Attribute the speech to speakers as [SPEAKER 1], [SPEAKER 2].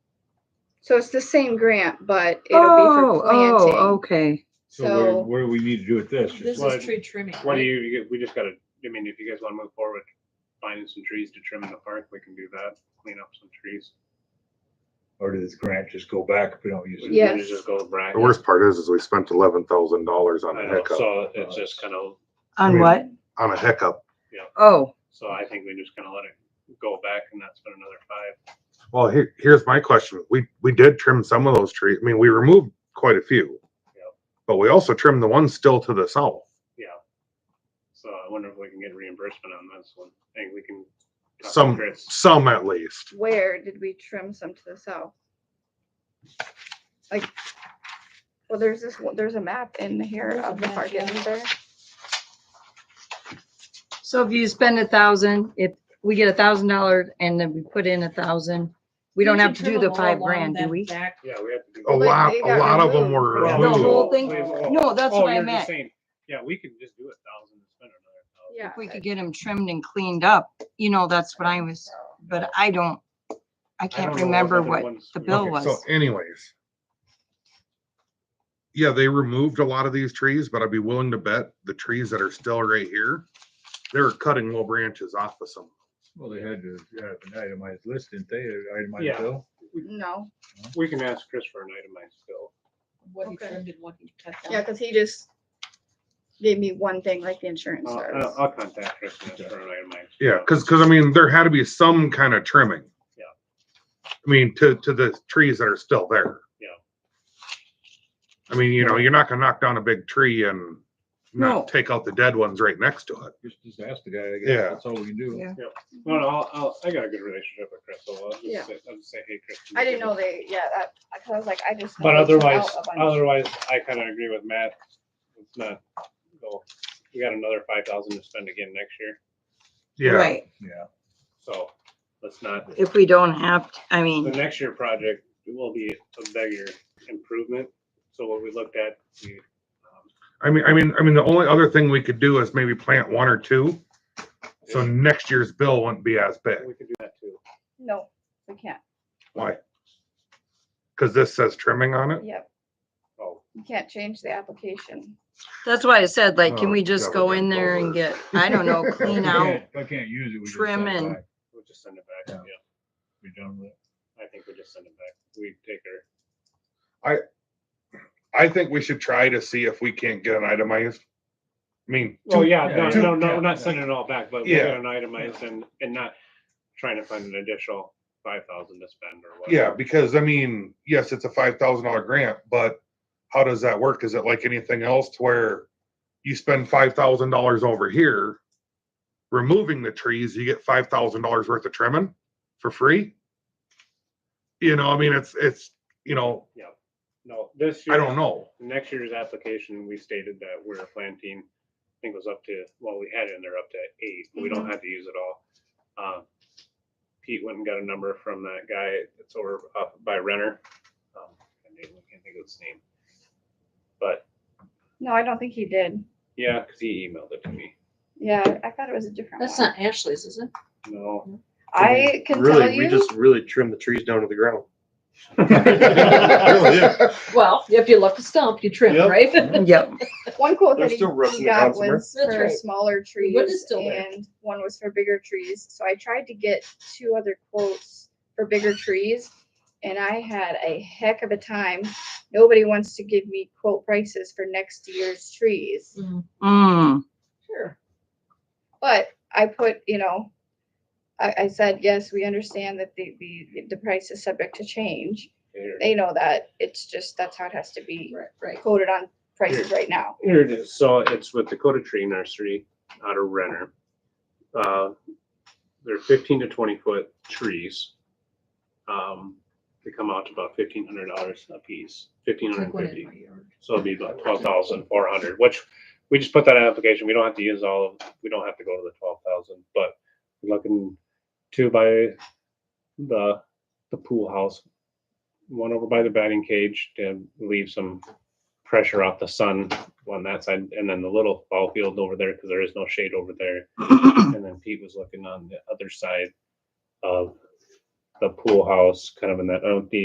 [SPEAKER 1] So it's the same grant, but it'll be
[SPEAKER 2] Oh,
[SPEAKER 1] for planting.
[SPEAKER 2] oh, okay.
[SPEAKER 1] So-
[SPEAKER 3] So where, what do we need to do with this?
[SPEAKER 4] This
[SPEAKER 3] Just
[SPEAKER 5] Well,
[SPEAKER 4] is tree trimming.
[SPEAKER 5] What do
[SPEAKER 4] right?
[SPEAKER 5] you, you- we just gotta, I mean, if you guys wanna move forward, finding some trees to trim in the park, we can do that, clean up some trees.
[SPEAKER 3] Or does this grant just go back if we don't use
[SPEAKER 5] We
[SPEAKER 3] it?
[SPEAKER 5] can
[SPEAKER 1] Yes.
[SPEAKER 5] Just go back.
[SPEAKER 6] The worst part is, is we spent eleven thousand dollars on
[SPEAKER 5] I
[SPEAKER 6] a
[SPEAKER 5] know,
[SPEAKER 6] hiccup,
[SPEAKER 5] So it's just kind of,
[SPEAKER 2] On
[SPEAKER 6] Yeah.
[SPEAKER 2] what?
[SPEAKER 6] on a hiccup.
[SPEAKER 2] Oh,
[SPEAKER 5] so I think we just kind of let it go back and that's been another five.
[SPEAKER 6] Well, here, here's my question. We, we did trim some of those trees. I mean, we removed quite a few.
[SPEAKER 5] Yep.
[SPEAKER 6] But we also trimmed the ones still to the south.
[SPEAKER 5] So I wonder if we can get reimbursement on this one. I think we can. talk to
[SPEAKER 6] Some,
[SPEAKER 5] Chris.
[SPEAKER 6] some at least.
[SPEAKER 1] Where did we trim some to the south? Like, well, there's this, one- there's a map in
[SPEAKER 4] There's
[SPEAKER 1] here
[SPEAKER 4] a
[SPEAKER 1] of the
[SPEAKER 4] map,
[SPEAKER 1] park,
[SPEAKER 4] yeah.
[SPEAKER 1] isn't there?
[SPEAKER 2] so if you spend a thousand, if we get a thousand dollars and then we put in a thousand, we don't
[SPEAKER 4] can
[SPEAKER 2] have to
[SPEAKER 4] trim
[SPEAKER 2] do the
[SPEAKER 4] them all
[SPEAKER 2] five
[SPEAKER 4] along
[SPEAKER 2] grand, do
[SPEAKER 4] that
[SPEAKER 2] we?
[SPEAKER 4] back-
[SPEAKER 5] Yeah, we have to do.
[SPEAKER 6] A
[SPEAKER 1] Well, they-
[SPEAKER 6] lot,
[SPEAKER 1] they
[SPEAKER 6] a
[SPEAKER 1] got
[SPEAKER 6] lot of them
[SPEAKER 1] removed.
[SPEAKER 6] were.
[SPEAKER 2] The
[SPEAKER 3] Removed.
[SPEAKER 2] whole thing?
[SPEAKER 5] Wait, whoa, whoa.
[SPEAKER 2] No, that's
[SPEAKER 5] Oh,
[SPEAKER 2] what I
[SPEAKER 5] you're just
[SPEAKER 2] meant.
[SPEAKER 5] saying- Yeah, we could just do a thousand and spend another thousand.
[SPEAKER 1] Yeah.
[SPEAKER 2] If we could get them trimmed and cleaned up, you know, that's what I was, but I don't, I
[SPEAKER 5] I don't
[SPEAKER 2] can't
[SPEAKER 5] know
[SPEAKER 2] remember
[SPEAKER 5] other
[SPEAKER 2] what.
[SPEAKER 5] ones
[SPEAKER 2] the
[SPEAKER 5] we-
[SPEAKER 2] bill
[SPEAKER 6] Okay,
[SPEAKER 2] was.
[SPEAKER 6] So anyways. Yeah, they removed a lot of these trees, but I'd be willing to bet the trees that are still right here, they were cutting little branches off of some.
[SPEAKER 3] Well, they had to have an itemized list, didn't they? An Itemized
[SPEAKER 5] Yeah.
[SPEAKER 3] bill?
[SPEAKER 1] No,
[SPEAKER 5] We can ask Chris for an itemized bill.
[SPEAKER 4] What he
[SPEAKER 1] Okay.
[SPEAKER 4] trimmed and what he cut
[SPEAKER 1] yeah,
[SPEAKER 4] down.
[SPEAKER 1] cause he just gave me one thing, like the insurance
[SPEAKER 5] I'll,
[SPEAKER 1] starts.
[SPEAKER 5] Uh, I'll- I'll contact Chris and ask for an itemized.
[SPEAKER 6] Yeah,
[SPEAKER 5] bill.
[SPEAKER 6] cause, cause I mean, there had to be some kind of trimming.
[SPEAKER 5] Yeah.
[SPEAKER 6] I mean, to, to the trees that are still there.
[SPEAKER 5] Yeah.
[SPEAKER 6] I mean, you know, you're not gonna knock down a big tree and
[SPEAKER 2] No.
[SPEAKER 6] not take out the dead ones right next to it.
[SPEAKER 3] Just, just ask the guy, I
[SPEAKER 6] Yeah.
[SPEAKER 3] guess. That's all we can do.
[SPEAKER 2] Yeah.
[SPEAKER 5] No, no, I'll, I'll, I got a good relationship with Chris, so I'll
[SPEAKER 1] Yeah.
[SPEAKER 5] just, say- I'll just say, hey, Chris. can
[SPEAKER 1] I
[SPEAKER 5] you
[SPEAKER 1] didn't
[SPEAKER 5] give
[SPEAKER 1] know
[SPEAKER 5] us-"
[SPEAKER 1] they, yeah, that, I- cause I was like, I just.
[SPEAKER 5] But
[SPEAKER 1] know they took
[SPEAKER 5] otherwise, uh,
[SPEAKER 1] out a bunch.
[SPEAKER 5] otherwise, I kind of agree with Matt. It's not, go, we got another five thousand to spend again next year,
[SPEAKER 6] Yeah,
[SPEAKER 2] Right,
[SPEAKER 3] Yeah.
[SPEAKER 5] so let's not, the
[SPEAKER 2] if we don't have, to- I mean,
[SPEAKER 5] next year project will be a bigger improvement. So what we looked at, we, um,
[SPEAKER 6] I mean, I mean, I mean, the only other thing we could do is maybe plant one or two. So
[SPEAKER 5] Yeah.
[SPEAKER 6] next year's bill wouldn't be as big.
[SPEAKER 5] we could do that too.
[SPEAKER 1] No, we can't,
[SPEAKER 6] Why? Cause this says trimming on it?
[SPEAKER 1] yep,
[SPEAKER 5] Oh,
[SPEAKER 1] you can't change the application.
[SPEAKER 2] that's why I said, like, can
[SPEAKER 6] Oh,
[SPEAKER 2] we just
[SPEAKER 6] double
[SPEAKER 2] go in there and
[SPEAKER 6] doubler.
[SPEAKER 2] get, I don't know,
[SPEAKER 3] If we
[SPEAKER 2] clean out?
[SPEAKER 3] can't- If I can't use it, we just.
[SPEAKER 2] trim
[SPEAKER 3] send it
[SPEAKER 2] and-
[SPEAKER 3] back.
[SPEAKER 5] we'll just send it back,
[SPEAKER 3] Yeah.
[SPEAKER 5] yeah,
[SPEAKER 3] Be done with it.
[SPEAKER 5] I think we'll just send it back. We take our
[SPEAKER 6] I think we should try to see if we can't get an itemized. I mean,
[SPEAKER 5] Well, yeah, no,
[SPEAKER 3] yeah,
[SPEAKER 5] no,
[SPEAKER 3] yeah,
[SPEAKER 5] no, we're not
[SPEAKER 3] yeah.
[SPEAKER 5] sending it all back, but we
[SPEAKER 6] Yeah.
[SPEAKER 5] got an itemized and, and not trying to find an additional five thousand to spend or
[SPEAKER 6] yeah,
[SPEAKER 5] whatever.
[SPEAKER 6] because I mean, yes, it's a five thousand dollar grant, but how does that work? Is it like anything else to where you spend five thousand dollars over here? Removing the trees, you get five thousand dollars worth of trimming for free? You know, I mean, it's, it's, you know,
[SPEAKER 5] No, this year.
[SPEAKER 6] I don't know.
[SPEAKER 5] Next year's application, we stated that we're planting, I think it was up to, well, we had it in there up to eight, we don't
[SPEAKER 6] Mhm.
[SPEAKER 5] have to use it all. Uh, Pete went and got a number from that guy, it's over up by Renner. Um, I can't think of his name. But,
[SPEAKER 1] No, I don't think he did,
[SPEAKER 5] yeah, cause he emailed it to me,
[SPEAKER 1] yeah, I thought it was a different one.
[SPEAKER 4] That's not Ashley's, is it?
[SPEAKER 5] no.
[SPEAKER 1] I can tell
[SPEAKER 7] Really, we
[SPEAKER 1] you,
[SPEAKER 7] just really trimmed the trees down to the ground.
[SPEAKER 3] Really, yeah.
[SPEAKER 4] Well, if you left a stump, you trim,
[SPEAKER 7] Yep.
[SPEAKER 4] right?
[SPEAKER 2] Yep,
[SPEAKER 1] one quote that
[SPEAKER 7] They're
[SPEAKER 1] he
[SPEAKER 7] still roughing
[SPEAKER 1] he
[SPEAKER 7] it
[SPEAKER 1] got
[SPEAKER 7] down somewhere.
[SPEAKER 1] was
[SPEAKER 4] That's
[SPEAKER 1] for
[SPEAKER 4] right.
[SPEAKER 1] smaller
[SPEAKER 4] wood is
[SPEAKER 1] trees
[SPEAKER 4] still there.
[SPEAKER 1] and one was for bigger trees, so I tried to get two other quotes for bigger trees. And I had a heck of a time, nobody wants to give me quote prices for next year's trees.
[SPEAKER 2] mm,
[SPEAKER 4] Sure.
[SPEAKER 1] But I put, you know, I, I said, yes, we understand that the, the, the price is subject to change.
[SPEAKER 5] Here,
[SPEAKER 1] They know that. It's just, that's how it has to be
[SPEAKER 4] Right, right.
[SPEAKER 1] quoted on prices right now.
[SPEAKER 5] Here it is. So it's with Dakota Tree Nursery out of Renner. Uh, They're fifteen to twenty foot trees. Um, They come out to about fifteen hundred dollars a piece, fifteen hundred fifty. So it'd be about twelve thousand four hundred, which we just put that in application. We don't have to use all of, we don't have to go to the twelve thousand, but we're looking two by the, the pool house. One over by the batting cage to leave some pressure off the sun on that side, and then the little ball field over there, because there is no shade over there. And then Pete was looking on the other side of the pool house, kind of in that, oh, the